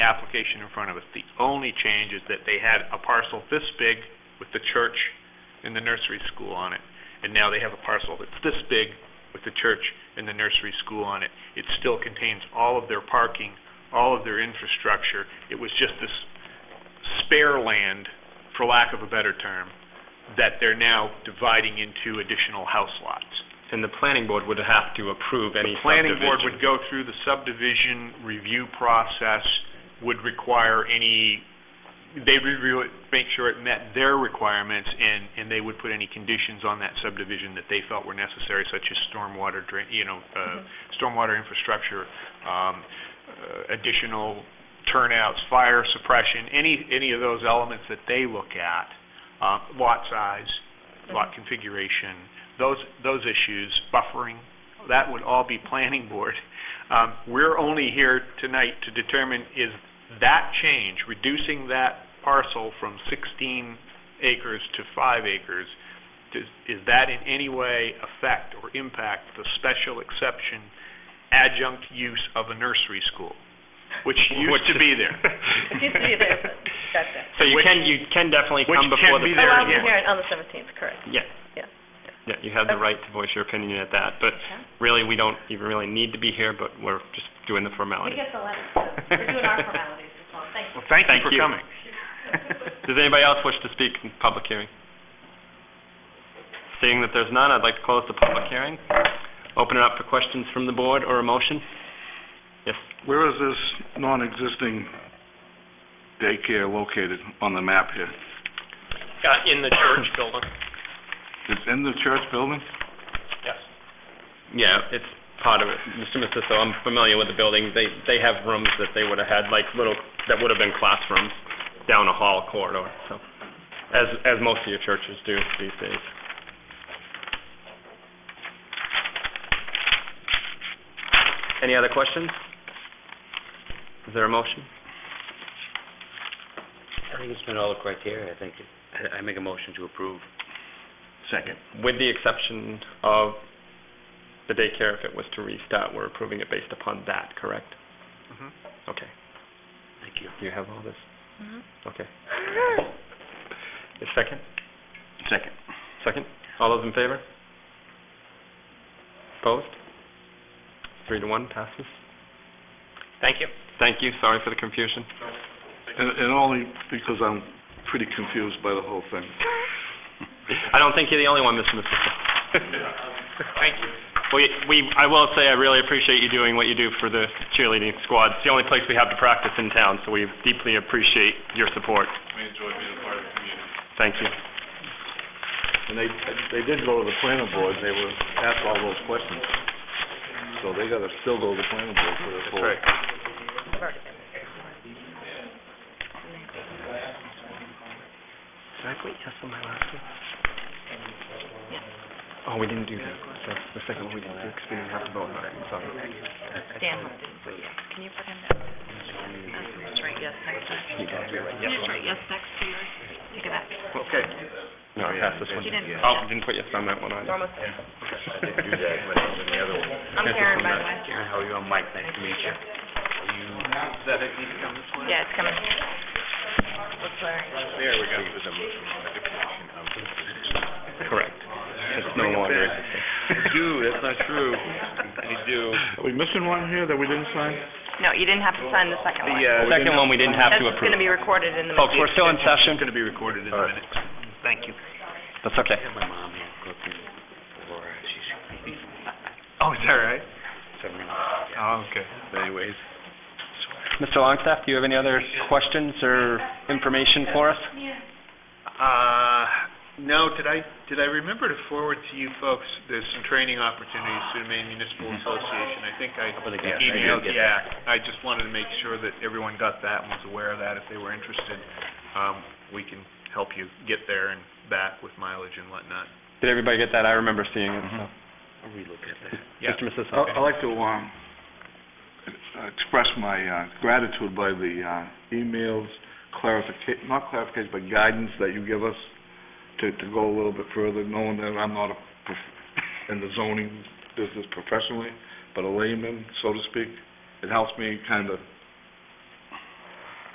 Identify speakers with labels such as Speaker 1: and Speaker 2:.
Speaker 1: application in front of us. The only change is that they had a parcel this big with the church and the nursery school on it. And now they have a parcel that's this big with the church and the nursery school on it. It still contains all of their parking, all of their infrastructure. It was just this spare land, for lack of a better term, that they're now dividing into additional house lots.
Speaker 2: And the planning board would have to approve any
Speaker 1: The planning board
Speaker 2: subdivision.
Speaker 1: would go through the subdivision review process, would require any, they review it, make sure it met their requirements, and, and they would put any conditions on that subdivision that they felt were necessary, such as stormwater drain, you know, uh, stormwater infrastructure, um, uh, additional turnouts, fire suppression, any, any of those elements that they look at, uh, lot size, lot configuration, those, those issues, buffering, that would all be planning board. Um, We're only here tonight to determine is that change, reducing that parcel from 16 acres to five acres, does, is that in any way affect or impact the special exception adjunct use of a nursery school, which used to be there?
Speaker 3: It used to be there, but that's it.
Speaker 2: So you
Speaker 1: Which-
Speaker 2: can, you can definitely
Speaker 1: which
Speaker 2: come before
Speaker 1: can be
Speaker 2: the
Speaker 3: Oh,
Speaker 1: there
Speaker 3: I'll
Speaker 1: again.
Speaker 2: planning
Speaker 3: be
Speaker 2: board.
Speaker 3: here on the seventeenth, correct.
Speaker 2: Yeah.
Speaker 3: Yeah.
Speaker 2: Yeah, you have the
Speaker 3: Okay.
Speaker 2: right to voice your opinion at that, but really, we don't even really need to be here, but we're just doing the formality.
Speaker 4: get the letter, so we're doing our formalities as well, thank you.
Speaker 1: Well, thank you
Speaker 2: Thank
Speaker 1: for
Speaker 2: you.
Speaker 1: coming.
Speaker 3: Mm-hmm.
Speaker 2: Does anybody else wish to speak in public hearing? Seeing that there's none, I'd like to close the public hearing. Open it up for questions from the board or a motion? Yes,
Speaker 5: Where is this non-existing daycare located on the map here?
Speaker 2: Uh, in the church building.
Speaker 5: It's in the church building?
Speaker 2: Yes. Yeah, it's part of it. Mr. Masisto, I'm familiar with the building. They, they have rooms that they would have had, like little, that would have been classrooms down a hall corridor, so, as, as most of your churches do these days. Any other questions? Is there a motion?
Speaker 6: I think it's met all the criteria, I think. it- I I make a motion to approve.
Speaker 5: Second.
Speaker 2: With the exception of the daycare, if it was to restart, we're approving it based upon that, correct?
Speaker 1: Mhm.
Speaker 2: Okay.
Speaker 6: Thank you.
Speaker 2: Do you have all this?
Speaker 3: Mhm.
Speaker 2: Okay. A second?
Speaker 5: Second.
Speaker 2: Second? All those in favor? Opposed? Three to one, passes. Thank you. Thank you, sorry for the confusion.
Speaker 5: And and only because I'm pretty confused by the whole thing.
Speaker 2: I don't think you're the only one, Mr. Masisto. Thank you. We, we, I will say, I really appreciate you doing what you do for the cheerleading squad. It's the only place we have to practice in town, so we deeply appreciate your support.
Speaker 5: I enjoy being a part of the community.
Speaker 2: Thank you.
Speaker 5: And they, they did go to the planning board, and they were asked all those questions. So they gotta still go to the planning board for this whole...
Speaker 3: I've already been there.
Speaker 2: Did I put yes on my last one? Oh, we didn't do that. That's the second one we didn't do, because we didn't have to vote on it, I'm sorry.
Speaker 3: Dan didn't put yes. Can you put him down? Just write yes next to it. Can you just write yes next to yours? Look at that.
Speaker 2: Okay.
Speaker 5: Oh,
Speaker 2: No, I passed this one.
Speaker 3: You didn't.
Speaker 2: Oh, didn't put yes on that one
Speaker 3: We're
Speaker 2: either.
Speaker 3: almost there.
Speaker 6: I didn't do that, but I was in the other one.
Speaker 3: I'm Karen, by the way.
Speaker 6: Karen, how are you? I'm Mike, nice to meet you. Are you... Is that it, need to come this way?
Speaker 3: Yeah, it's coming. Let's learn.
Speaker 6: There we go. With a motion on the definition of
Speaker 2: Correct. It's no longer. existing.
Speaker 6: Do, that's not true. You do.
Speaker 5: Are we missing one here that we didn't sign?
Speaker 3: No, you didn't have to sign the second one.
Speaker 6: uh,
Speaker 2: The second one Oh, we didn't have to
Speaker 3: That's
Speaker 2: approve.
Speaker 3: gonna be recorded in the.
Speaker 2: Folks, we're still in
Speaker 1: It's
Speaker 2: session.
Speaker 1: going to be recorded in a
Speaker 6: All right.
Speaker 1: minute. Thank you.
Speaker 2: That's okay.
Speaker 6: I have my mom here cooking. Laura, she's cooking.
Speaker 1: Oh, is that right?
Speaker 6: Seven minutes.
Speaker 1: Oh, okay.
Speaker 6: Anyways.
Speaker 2: Mr. Longstaff, do you have any other questions or information for us?
Speaker 1: Uh, no, did I, did I remember to forward to you folks, there's some training opportunities through the Maine Municipal Association. I think I
Speaker 6: Up in the gas station.
Speaker 1: emailed,
Speaker 6: Yeah.
Speaker 1: yeah. I just wanted to make sure that everyone got that and was aware of that. If they were interested, um, we can help you get there and back with mileage and whatnot.
Speaker 2: Did everybody get that? I remember seeing it, so.
Speaker 6: I'll relook at that.
Speaker 1: Yeah.
Speaker 2: Mr. Mrs.
Speaker 5: I- I'd like to um, express my uh, gratitude by the uh, emails, clarification, not clarification, but guidance that you give us to to go a little bit further, knowing that I'm not a prof- in the zoning business professionally, but a layman, so to speak. It helps me kind of